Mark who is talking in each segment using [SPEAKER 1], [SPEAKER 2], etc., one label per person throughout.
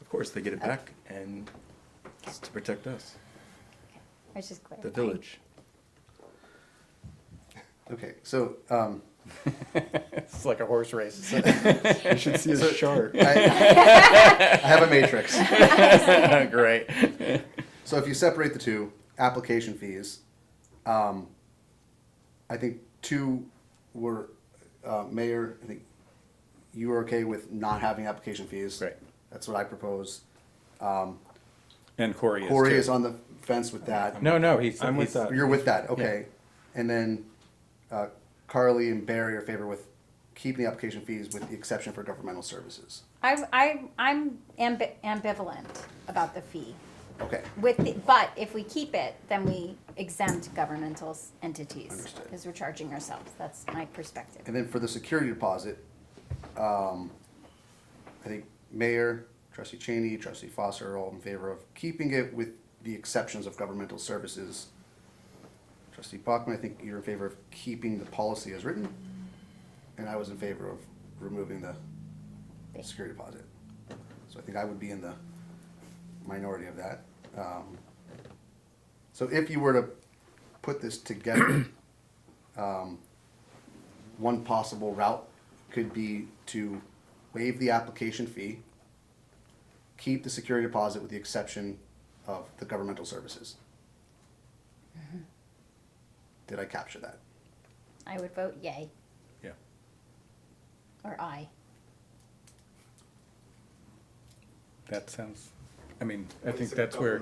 [SPEAKER 1] Of course, they get it back, and it's to protect us,
[SPEAKER 2] I was just clarifying.
[SPEAKER 1] the village.
[SPEAKER 3] Okay, so um,
[SPEAKER 4] It's like a horse race.
[SPEAKER 1] You should see a shark.
[SPEAKER 3] I, I have a matrix.
[SPEAKER 4] Great.
[SPEAKER 3] So if you separate the two application fees, um, I think two were uh, mayor. I think you were okay with not having application fees.
[SPEAKER 4] Right.
[SPEAKER 3] That's what I propose.
[SPEAKER 4] And Corey is
[SPEAKER 3] Corey
[SPEAKER 4] too.
[SPEAKER 3] is on the fence with that.
[SPEAKER 4] No, no, he's.
[SPEAKER 1] I'm with
[SPEAKER 4] he's- uh,
[SPEAKER 1] that.
[SPEAKER 3] You're with that, okay. And then uh, Carly and Barry are favor with keeping the application fees with the exception for governmental services.
[SPEAKER 2] I, I, I'm ambi- ambivalent about the fee.
[SPEAKER 3] Okay.
[SPEAKER 2] With, the- but if we keep it, then we exempt governmental s- entities.
[SPEAKER 3] Understood.
[SPEAKER 2] Because we're charging ourselves. That's my perspective.
[SPEAKER 3] And then for the security deposit, um, I think Mayor, Trustee Cheney, Trustee Foster are all in favor of keeping it with the exceptions of governmental services. Trustee Bachman, I think you're in favor of keeping the policy as written, and I was in favor of removing the security deposit. So I think I would be in the minority of that. Um, So if you were to put this together, one possible route could be to waive the application fee, keep the security deposit with the exception of the governmental services.
[SPEAKER 2] Mm-hmm.
[SPEAKER 3] Did I capture that?
[SPEAKER 2] I would vote yay
[SPEAKER 1] Yeah.
[SPEAKER 2] or aye.
[SPEAKER 4] That sounds, I mean, I think that's where,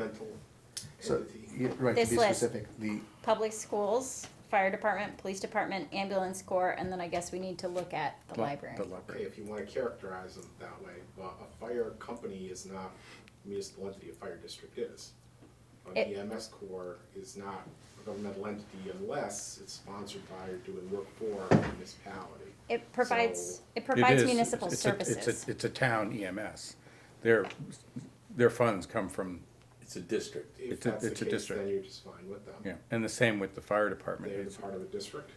[SPEAKER 3] So, yeah, right, to
[SPEAKER 2] This
[SPEAKER 3] be
[SPEAKER 2] list.
[SPEAKER 3] specific, the,
[SPEAKER 2] Public schools, fire department, police department, ambulance corps, and then I guess we need to look at the library.
[SPEAKER 4] the
[SPEAKER 5] Okay,
[SPEAKER 4] library.
[SPEAKER 5] if you wanna characterize them that way, but a fire company is not a municipal entity, a fire district is. An
[SPEAKER 2] It-
[SPEAKER 5] EMS corps is not a governmental entity unless it's sponsored by or doing work for a municipality.
[SPEAKER 2] It provides,
[SPEAKER 5] So-
[SPEAKER 2] it
[SPEAKER 4] It
[SPEAKER 2] provides
[SPEAKER 4] is-
[SPEAKER 2] municipal
[SPEAKER 4] it's a- it's a-
[SPEAKER 2] services.
[SPEAKER 4] It's a town EMS. Their, their funds come from,
[SPEAKER 1] It's a district.
[SPEAKER 5] If
[SPEAKER 4] It's a-
[SPEAKER 5] that's the
[SPEAKER 4] it's a
[SPEAKER 5] case,
[SPEAKER 4] district.
[SPEAKER 5] then you're just fine with them.
[SPEAKER 4] yeah, and the same with the fire department.
[SPEAKER 5] They're
[SPEAKER 4] It's-
[SPEAKER 5] the part of a district.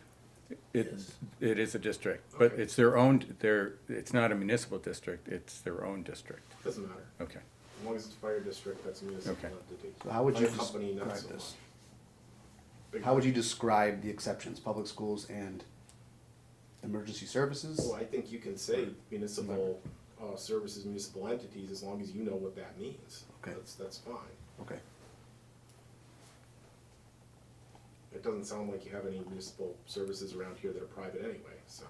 [SPEAKER 4] It, it is a district, but
[SPEAKER 5] Okay.
[SPEAKER 4] it's their own, their, it's not a municipal district, it's their own district.
[SPEAKER 5] Doesn't matter.
[SPEAKER 4] Okay.
[SPEAKER 5] As long as it's a fire district, that's a municipal
[SPEAKER 4] Okay.
[SPEAKER 5] entity.
[SPEAKER 3] So how would you
[SPEAKER 5] Fire company, not
[SPEAKER 3] describe
[SPEAKER 5] so
[SPEAKER 3] this?
[SPEAKER 5] much.
[SPEAKER 3] how would you describe the exceptions, public schools and emergency services?
[SPEAKER 5] Well, Oh, I think you can say municipal, uh, services, municipal entities, as long as you know what that means.
[SPEAKER 3] Okay.
[SPEAKER 5] That's, that's fine.
[SPEAKER 3] Okay,
[SPEAKER 5] It doesn't sound like you have any municipal services around here that are private anyway, so.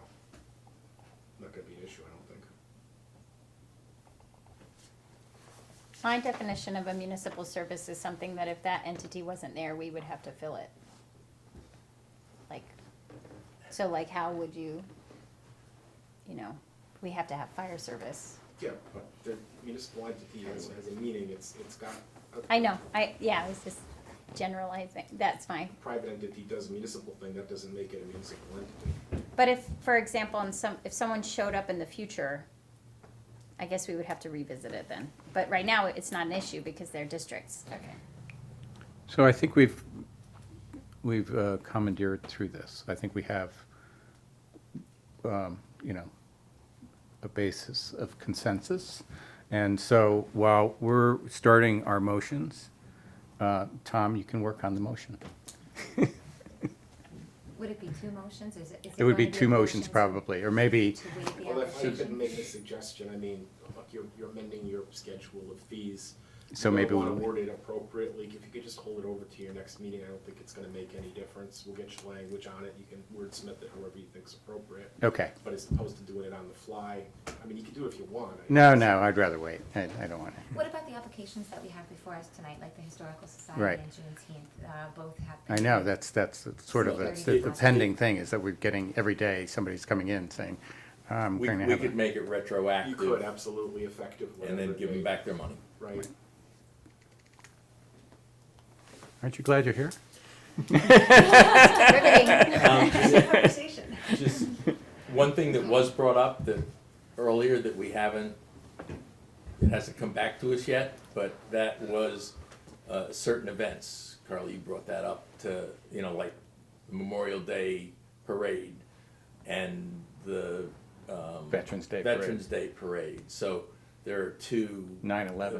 [SPEAKER 5] Not gonna be an issue, I don't think.
[SPEAKER 2] My definition of a municipal service is something that if that entity wasn't there, we would have to fill it. Like, so like, how would you, you know, we have to have fire service.
[SPEAKER 5] Yeah, but the municipal entity has, has a meaning, it's, it's got, a
[SPEAKER 2] I know, I, yeah, I was just generalizing, that's my
[SPEAKER 5] private entity does a municipal thing, that doesn't make it a municipal entity.
[SPEAKER 2] But if, for example, in some, if someone showed up in the future, I guess we would have to revisit it then. But right now, it's not an issue because they're districts. Okay.
[SPEAKER 4] So I think we've, we've uh, commandeered through this. I think we have, um, you know, a basis of consensus. And so while we're starting our motions, uh, Tom, you can work on the motion.
[SPEAKER 6] Would it be two motions, is it? is
[SPEAKER 4] It would
[SPEAKER 6] going
[SPEAKER 4] be
[SPEAKER 6] to
[SPEAKER 4] two
[SPEAKER 6] a
[SPEAKER 4] motions
[SPEAKER 6] motion
[SPEAKER 4] probably, or maybe,
[SPEAKER 6] To waive the
[SPEAKER 5] Well, if I could
[SPEAKER 6] application?
[SPEAKER 5] make a suggestion, I mean, look, you're, you're amending your schedule of fees.
[SPEAKER 4] So
[SPEAKER 5] You
[SPEAKER 4] maybe
[SPEAKER 5] don't wanna
[SPEAKER 4] we'll-
[SPEAKER 5] Word it appropriately, if you could just hold it over to your next meeting, I don't think it's gonna make any difference, we'll get your language on it, you can wordsmith it however you think's appropriate.
[SPEAKER 4] okay.
[SPEAKER 5] But as opposed to doing it on the fly, I mean, you can do it if you want. I
[SPEAKER 4] No,
[SPEAKER 5] guess.
[SPEAKER 4] no, I'd rather wait. I, I don't want to.
[SPEAKER 6] What about the applications that we have before us tonight, like the Historical
[SPEAKER 4] Right.
[SPEAKER 6] Society and Juneteenth, uh, both have.
[SPEAKER 4] I
[SPEAKER 6] been-
[SPEAKER 4] know, that's, that's the- sort of, that's the the pending thing, is that we're getting, every day, somebody's coming in saying, I'm
[SPEAKER 7] We,
[SPEAKER 4] going to
[SPEAKER 7] we
[SPEAKER 4] have,
[SPEAKER 7] could
[SPEAKER 4] a-
[SPEAKER 7] make
[SPEAKER 5] You
[SPEAKER 7] it
[SPEAKER 5] could
[SPEAKER 7] retroactive
[SPEAKER 5] absolutely effectively.
[SPEAKER 7] and then give them back their money.
[SPEAKER 5] Right,
[SPEAKER 4] aren't you glad you're here?
[SPEAKER 2] Riveting.
[SPEAKER 7] Just, one thing that was brought up that, earlier that we haven't, it hasn't come back to us yet, but that was, uh, certain events. Carly, you brought that up to, you know, like Memorial Day Parade and the Um,
[SPEAKER 4] Veterans Day Parade.
[SPEAKER 7] Veterans Day Parade. So
[SPEAKER 8] there are two.
[SPEAKER 7] Nine eleven.